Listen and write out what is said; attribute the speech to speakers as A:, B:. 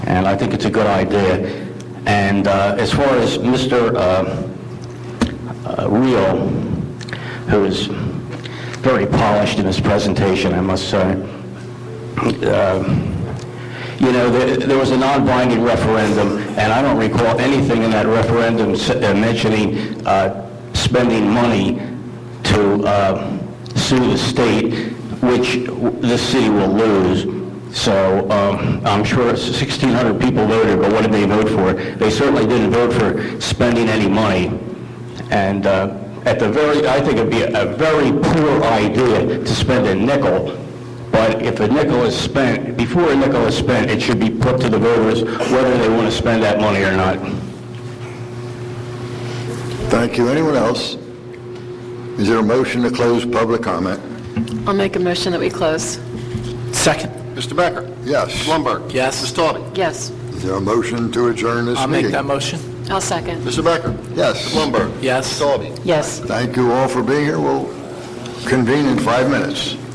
A: and I think it's a good idea. And uh, as far as Mr. uh, uh, Reel, who is very polished in his presentation, I must say, you know, there, there was a non-binding referendum, and I don't recall anything in that referendum s- uh, mentioning uh, spending money to uh, sue the state, which w- the city will lose. So um, I'm sure 1,600 people voted, but what did they vote for? They certainly didn't vote for spending any money. And uh, at the very, I think it'd be a very poor idea to spend a nickel, but if a nickel is spent, before a nickel is spent, it should be put to the voters whether they want to spend that money or not.
B: Thank you. Anyone else? Is there a motion to close public comment?
C: I'll make a motion that we close.
D: Second.
E: Mr. Becker?
B: Yes.
E: Blumberg?
D: Yes.
E: Ms. Doughty?
C: Yes,
B: Is there a motion to adjourn this
D: I'll make
B: meeting?
D: that motion.
C: I'll second.
E: Mr. Becker?
B: Yes.
E: Blumberg?
D: Yes.
E: Ms. Doughty?
C: Yes.
B: Thank you all for being here. We'll convene in five minutes.